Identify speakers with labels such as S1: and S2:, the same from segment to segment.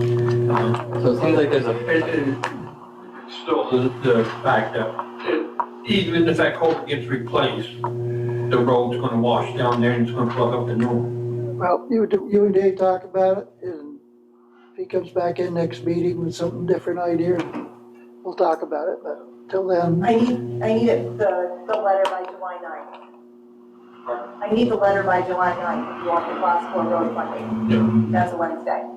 S1: So it seems like there's a, it- it- still the, the fact that it- even if that culvert gets replaced, the road's gonna wash down there and it's gonna plug up the new.
S2: Well, you, d- you and Dave talk about it, and if he comes back in next meeting with something different idea, we'll talk about it, but till then,
S3: I need, I need it, the, the letter by July ninth. I need the letter by July ninth if you want the class four road funding. That's a Wednesday.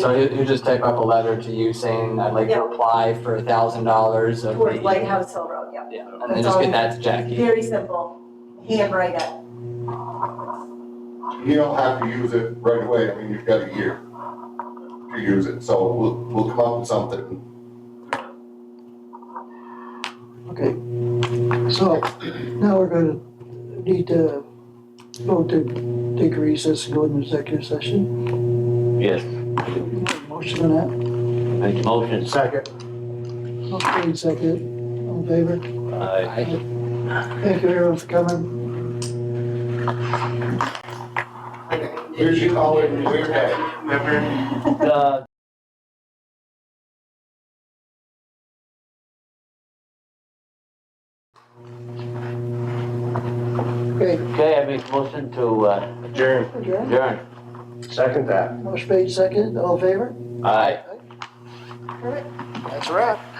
S4: So he'll, he'll just type up a letter to you saying, I'd like
S3: Yeah.
S4: to apply for a thousand dollars of the.
S3: Towards Lighthouse Hill Road, yeah.
S4: Yeah, and then
S3: That's
S4: just
S3: all.
S4: get that to Jackie.
S3: Very simple, handwrite it.
S5: You don't have to use it right away, I mean, you've got a year to use it, so we'll, we'll come up with something.
S2: okay. So now we're gonna need to go to take a recess and go into executive session.
S6: Yes,
S2: Motion on that,
S6: make the motion.
S7: Second.
S2: okay, second, all in favor?
S6: Aye.
S2: Thank you everyone for coming.
S5: Here's your call in, we're back.
S6: Uh,
S2: Okay,
S6: Okay, I make motion to uh,
S7: Adjourn.
S2: adjourn,
S6: adjourn.
S7: Second that.
S2: motion made second, all in favor?
S6: Aye.
S2: All right. That's a wrap.